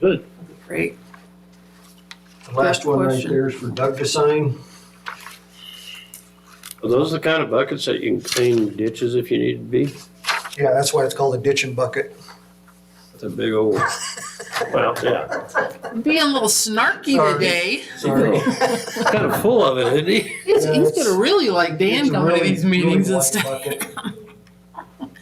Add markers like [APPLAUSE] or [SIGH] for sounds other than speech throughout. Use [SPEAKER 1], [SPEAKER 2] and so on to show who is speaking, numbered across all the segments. [SPEAKER 1] Good.
[SPEAKER 2] Great.
[SPEAKER 3] The last one right
[SPEAKER 2] Question.
[SPEAKER 3] there is for Doug to sign.
[SPEAKER 1] Are those the kind of buckets that you can clean ditches if you need to be?
[SPEAKER 3] Yeah, that's why it's called a ditch and bucket.
[SPEAKER 1] It's a big old, well, yeah.
[SPEAKER 2] Being a little snarky
[SPEAKER 3] Sorry.
[SPEAKER 2] today.
[SPEAKER 1] [LAUGHS]
[SPEAKER 3] Sorry.
[SPEAKER 1] He's Kind of full of it, isn't he?
[SPEAKER 2] He's,
[SPEAKER 3] Yeah,
[SPEAKER 2] he's
[SPEAKER 3] it's-
[SPEAKER 2] gonna really like Dan
[SPEAKER 3] It's a
[SPEAKER 2] coming to
[SPEAKER 3] really,
[SPEAKER 2] these meetings and
[SPEAKER 3] really wide
[SPEAKER 2] stuff. [LAUGHS]
[SPEAKER 3] bucket.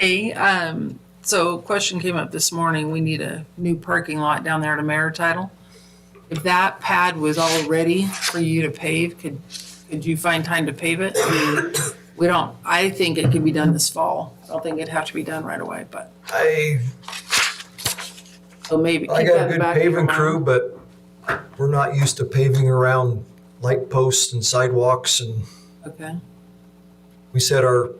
[SPEAKER 2] A, um, so question came up this morning, we need a new parking lot down there at Ameritidal. If that pad was all ready for you to pave, could, could you find time to pave it? I mean, We don't, I think it could be done this fall, I don't think it'd have to be done right away, but,
[SPEAKER 3] I,
[SPEAKER 2] so maybe.
[SPEAKER 3] I
[SPEAKER 2] keep
[SPEAKER 3] got
[SPEAKER 2] that
[SPEAKER 3] a good
[SPEAKER 2] back in your
[SPEAKER 3] paving
[SPEAKER 2] mind.
[SPEAKER 3] crew, but we're not used to paving around light posts and sidewalks and
[SPEAKER 2] Okay,
[SPEAKER 3] we set our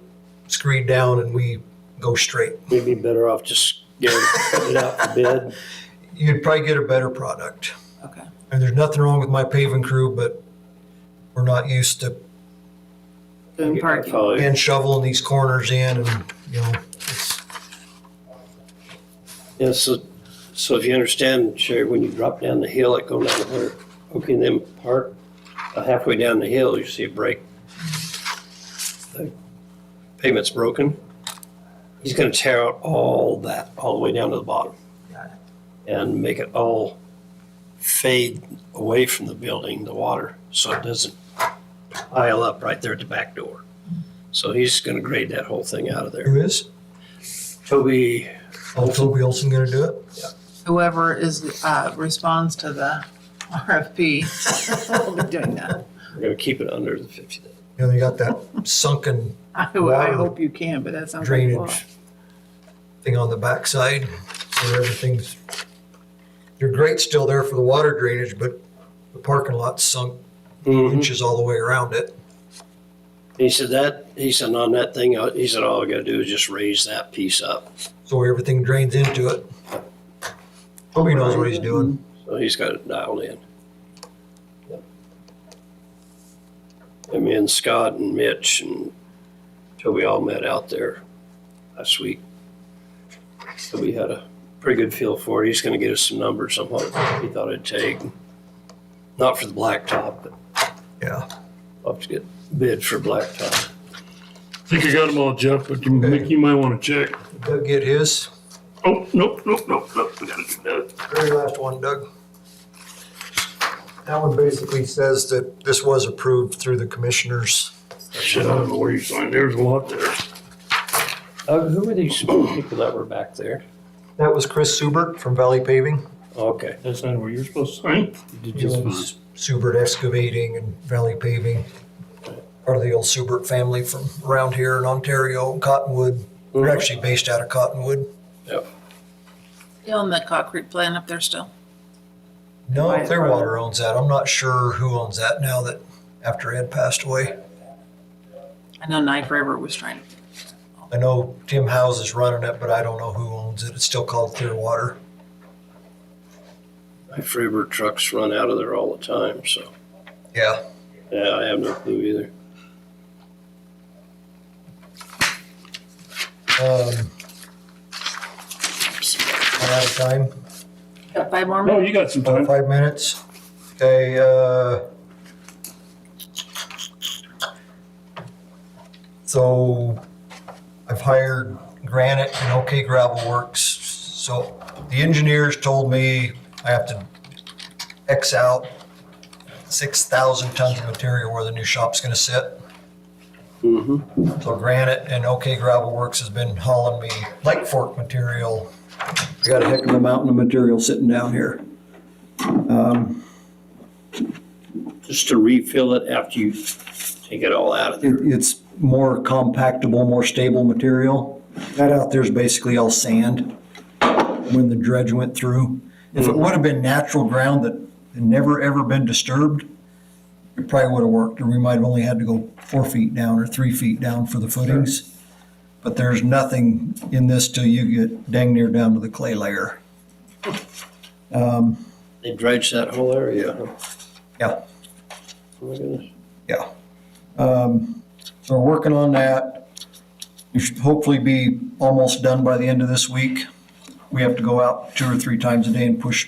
[SPEAKER 3] screed down and we go straight.
[SPEAKER 1] You'd be better off just getting it out for bid.
[SPEAKER 3] You'd probably get a better product.
[SPEAKER 2] okay,
[SPEAKER 3] And there's nothing wrong with my paving crew, but we're not used to
[SPEAKER 2] doing parking.
[SPEAKER 1] Probably.
[SPEAKER 3] hand shoveling these corners in and, you know, it's,
[SPEAKER 1] Yeah, so, so if you understand, Sherry, when you drop down the hill, like going down the hundred, okay, and then park uh, halfway down the hill, you see a break. The Pavement's broken. He's gonna tear out all that, all the way down to the bottom. And make it all fade away from the building, the water, so it doesn't pile up right there at the back door. So he's gonna grade that whole thing out of there.
[SPEAKER 3] who is?
[SPEAKER 1] Toby,
[SPEAKER 3] Oh, Toby Olson gonna do it?
[SPEAKER 2] Whoever is, uh, responds to the [LAUGHS] RFP, will be doing that.
[SPEAKER 1] we're gonna keep it under the fifty day.
[SPEAKER 3] You know, you got that sunken
[SPEAKER 2] I, I
[SPEAKER 3] Water
[SPEAKER 2] hope you can, but that sounds like a lot.
[SPEAKER 3] drainage thing on the backside where everything's, your grate's still there for the water drainage, but the parking lot's sunk
[SPEAKER 1] Mm-hmm.
[SPEAKER 3] inches all the way around it.
[SPEAKER 1] He said that, he said on that thing, uh, he said all I gotta do is just raise that piece up.
[SPEAKER 3] So everything drains into it. Toby knows what he's doing.
[SPEAKER 1] So he's got it dialed in. And me and Scott and Mitch and Toby all met out there last week. So we had a pretty good feel for it. He's gonna get us some numbers on what he thought it'd take. Not for the blacktop, but
[SPEAKER 3] Yeah.
[SPEAKER 1] I'll have to get bid for blacktop.
[SPEAKER 4] I think I got them all, Jeff, but you- Mick, you might want to check.
[SPEAKER 3] Did Doug get his?
[SPEAKER 4] Oh, nope, nope, nope, nope. We gotta do that.
[SPEAKER 3] Very last one, Doug. That one basically says that this was approved through the commissioners.
[SPEAKER 4] Shit, I don't know where you signed. There's a lot there.
[SPEAKER 1] Doug, Uh, who were these people that were back there?
[SPEAKER 3] That was Chris Subert from Valley Paving.
[SPEAKER 1] Okay.
[SPEAKER 4] That's not where you're supposed to sign.
[SPEAKER 3] He owns Subert Excavating and Valley Paving. Part of the old Subert family from around here in Ontario, Cottonwood. They're actually based out of Cottonwood.
[SPEAKER 1] Yep.
[SPEAKER 2] You own that concrete plant up there still?
[SPEAKER 3] No, Clearwater owns that. I'm not sure who owns that now that, after Ed passed away.
[SPEAKER 2] I know Knife River was trying to.
[SPEAKER 3] I know Tim House is running it, but I don't know who owns it. It's still called Clearwater.
[SPEAKER 1] My Freebird trucks run out of there all the time, so,
[SPEAKER 3] Yeah.
[SPEAKER 1] yeah, I have no clue either.
[SPEAKER 3] Um, I'm out of time.
[SPEAKER 2] Got five more
[SPEAKER 4] No,
[SPEAKER 2] minutes?
[SPEAKER 4] you got some
[SPEAKER 3] About
[SPEAKER 4] time.
[SPEAKER 3] five minutes. Okay, uh. So I've hired Granite and OK Gravel Works. So the engineers told me I have to X out six thousand tons of material where the new shop's gonna sit.
[SPEAKER 1] Mm-hmm.
[SPEAKER 3] So Granite and OK Gravel Works has been hauling me light fork material. I got a heck of a mountain of material sitting down here.
[SPEAKER 1] Just to refill it after you take it all out of there.
[SPEAKER 3] it, it's more compactable, more stable material. That out there is basically all sand when the dredge went through. If it would have been natural ground that had never, ever been disturbed, it probably would have worked, or we might have only had to go four feet down or three feet down for the footings. But there's nothing in this till you get dang near down to the clay layer.
[SPEAKER 1] They dredge that whole area. huh?
[SPEAKER 3] Yeah.
[SPEAKER 1] Oh my goodness.
[SPEAKER 3] Yeah. Um, so we're working on that. We should hopefully be almost done by the end of this week. we have to go out two or three times a day and push